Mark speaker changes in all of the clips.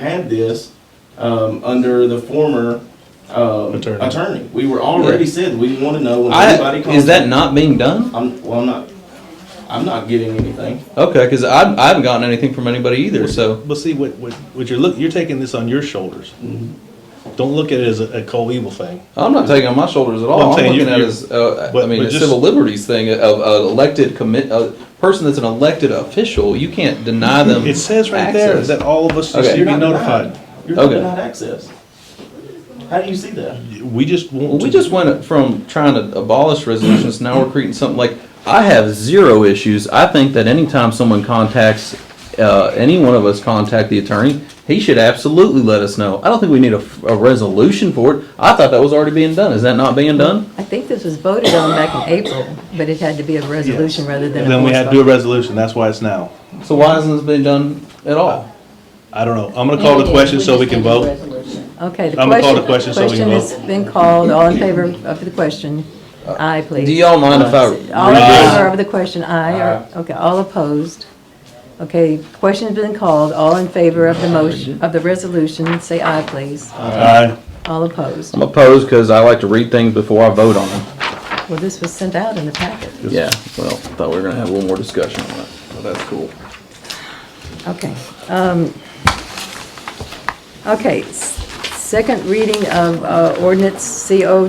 Speaker 1: had this um, under the former um,
Speaker 2: Attorney.
Speaker 1: attorney. We were already
Speaker 3: Yeah.
Speaker 1: said we want to know when
Speaker 3: I,
Speaker 1: anybody comes.
Speaker 3: is that not being done?
Speaker 1: I'm well. I'm not. I'm not getting anything.
Speaker 3: Okay, because I, I haven't gotten anything from anybody either, so.
Speaker 2: But see, what, what, what you're look, you're taking this on your shoulders.
Speaker 3: Mm-hmm.
Speaker 2: Don't look at it as a, a Cole Evil thing.
Speaker 3: I'm not taking it on my shoulders at all.
Speaker 2: Well, I'm
Speaker 3: I'm,
Speaker 2: saying you-
Speaker 3: looking at it
Speaker 2: you-
Speaker 3: as, uh, I
Speaker 2: but-
Speaker 3: mean,
Speaker 2: but
Speaker 3: a
Speaker 2: just-
Speaker 3: civil liberties thing of an elected commit, a person that's an elected official. You can't deny them.
Speaker 2: It says right there
Speaker 3: Mm-hmm. access.
Speaker 2: that all of us
Speaker 3: Okay.
Speaker 2: should be
Speaker 1: You're not
Speaker 2: notified.
Speaker 1: denied. You're not
Speaker 3: Okay.
Speaker 1: denied access. How do you see that?
Speaker 2: We just
Speaker 3: Well,
Speaker 2: want
Speaker 3: we
Speaker 2: to.
Speaker 3: just went from trying to abolish resolutions, now we're creating something like, I have zero issues. I think that anytime someone contacts, uh, any one of us contact the attorney, he should absolutely let us know. I don't think we need a, a resolution for it. I thought that was already being done. Is that not being done?
Speaker 4: I think this was voted on back in April, but it had to be a resolution rather than a.
Speaker 2: Then we had to do a
Speaker 4: voice
Speaker 2: resolution, that's why it's now.
Speaker 3: So why hasn't this been done at all?
Speaker 2: I don't know, I'm gonna call the question so we can vote.
Speaker 4: vote. Okay, the
Speaker 2: I'm gonna call the
Speaker 4: question,
Speaker 2: question so we can
Speaker 4: question has been called, all in favor of the question, aye, please.
Speaker 3: Uh, Do y'all mind if I
Speaker 4: All in
Speaker 3: read
Speaker 2: this?
Speaker 4: favor of the question, aye, or, okay, all opposed? Okay, question's been called, all in favor of the motion, of the resolution, say aye, please.
Speaker 2: Aye.
Speaker 4: All opposed.
Speaker 3: I'm opposed because I like to read things before I vote on them.
Speaker 4: Well, this was sent out in the packet.
Speaker 3: Yeah, well, thought we were gonna have a little more discussion on it, but that's cool.
Speaker 4: Okay. um, Okay, s- second reading of uh, ordinance CO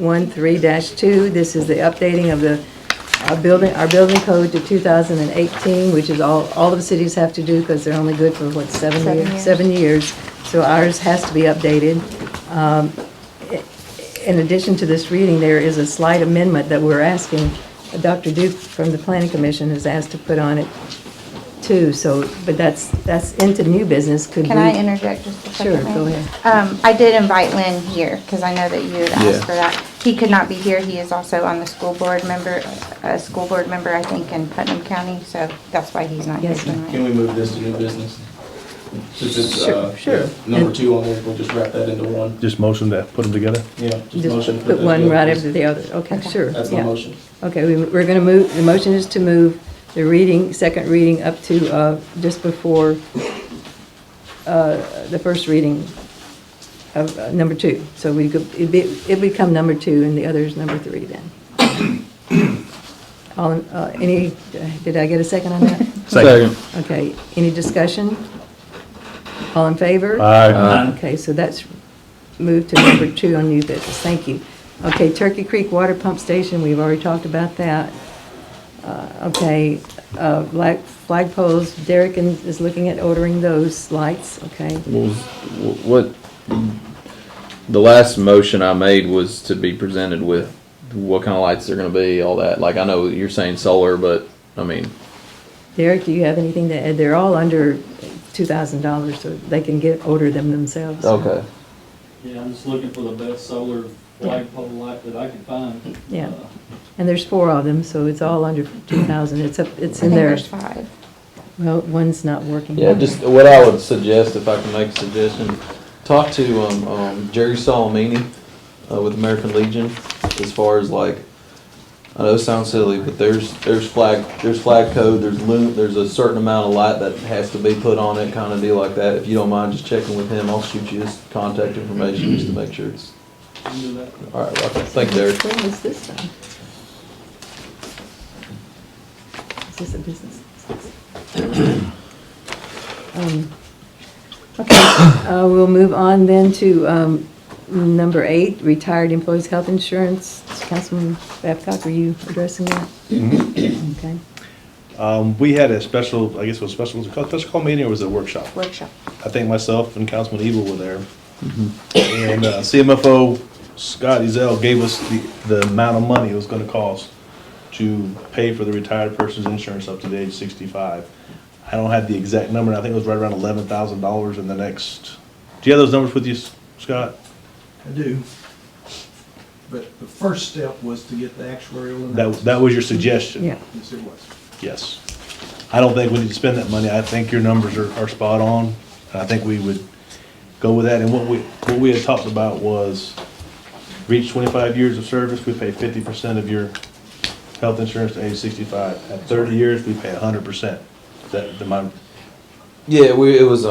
Speaker 4: 202-11013-2. This is the updating of the, our building, our building code to 2018, which is all, all the cities have to do because they're only good for, what, seven
Speaker 5: Seven
Speaker 4: years?
Speaker 5: years.
Speaker 4: Seven years. So ours has to be updated. Um, i- In addition to this reading, there is a slight amendment that we're asking, Dr. Duke from the Planning Commission has asked to put on it too, so, but that's, that's into new business, could we?
Speaker 5: Can I interject just a second?
Speaker 4: Sure, go
Speaker 5: ma'am?
Speaker 4: ahead.
Speaker 5: Um, I did invite Lynn here, because I know that you had
Speaker 3: Yeah.
Speaker 5: asked for that. He could not be here, he is also on the school board member, a school board member, I think, in Putnam County, so that's why he's not here
Speaker 4: Yes, ma'am.
Speaker 5: tonight.
Speaker 1: Can we move this to new business? Since it's, uh,
Speaker 4: Sure, sure.
Speaker 1: Number two on this, we'll just wrap that into one.
Speaker 2: Just motion to put them together?
Speaker 1: Yeah. Just motion
Speaker 4: Just
Speaker 1: to
Speaker 4: put
Speaker 1: that
Speaker 4: one
Speaker 1: together.
Speaker 4: right after the other, okay,
Speaker 5: Okay.
Speaker 4: sure.
Speaker 1: That's my
Speaker 4: yeah.
Speaker 1: motion.
Speaker 4: Okay, we- we're going to move, the motion is to move the reading, second reading up to uh, just before uh, the first reading of uh, number two. So we could, it'd be- it'd become number two and the other is number three then. All, in- uh, any, did I get a second on that?
Speaker 3: Second.
Speaker 4: Okay, any discussion? All in favor?
Speaker 3: Uh-huh.
Speaker 2: Aye.
Speaker 4: Okay, so that's moved to number two on new business, thank you. Okay, Turkey Creek Water Pump Station, we've already talked about that. Uh, Okay, uh, black flag poles, Derek in- is looking at ordering those lights, okay?
Speaker 3: What was- wh- What, the last motion I made was to be presented with what kind of lights they're gonna be, all that. Like, I know you're saying solar, but, I mean,
Speaker 4: Derek, do you have anything to add? They're all under $2,000, so they can get, order them themselves.
Speaker 3: okay.
Speaker 6: Yeah, I'm just looking for the best solar flagpole light that I can find.
Speaker 4: Yeah.
Speaker 6: Uh,
Speaker 4: And there's four of them, so it's all under 2,000, it's up, it's
Speaker 5: I
Speaker 4: in
Speaker 5: think
Speaker 4: there.
Speaker 5: there's five.
Speaker 4: Well, one's not working.
Speaker 3: Yeah, just what I would suggest, if I can make a suggestion, talk to, um, um, Jerry Solomini, uh, with American Legion, as far as like, I know it sounds silly, but there's, there's flag, there's flag code, there's loom, there's a certain amount of light that has to be put on it, kinda deal like that. If you don't mind just checking with him, I'll shoot you his contact information just to make sure it's,
Speaker 6: I can do that.
Speaker 3: alright, well, thank you, Derek.
Speaker 4: When was this done? Is this a business? Um, Okay, uh, we'll move on then to um, number eight, retired employees' health insurance. Councilman Babcock, are you addressing that? Okay.
Speaker 2: Um, we had a special, I guess it was special, was it called, special call meeting or was it a workshop?
Speaker 5: Workshop.
Speaker 2: I think myself and Councilman Evil were there. And uh, CMFO Scott Ezell gave us the, the amount of money it was gonna cost to pay for the retired person's insurance up to the age of sixty-five. I don't have the exact number, and I think it was right around eleven thousand dollars in the next, do you have those numbers with you, S- Scott?
Speaker 7: I do. But the first step was to get the actuarial
Speaker 2: That,
Speaker 7: analysis.
Speaker 2: that was your suggestion?
Speaker 4: Yeah.
Speaker 7: Yes, it was.
Speaker 2: Yes. I don't think we need to spend that money. I think your numbers are, are spot on. And I think we would go with that. And what we, what we had talked about was reach twenty-five years of service, we pay fifty percent of your health insurance to age sixty-five. At thirty years, we pay hundred percent. That, that my
Speaker 3: Yeah, we, it was, um,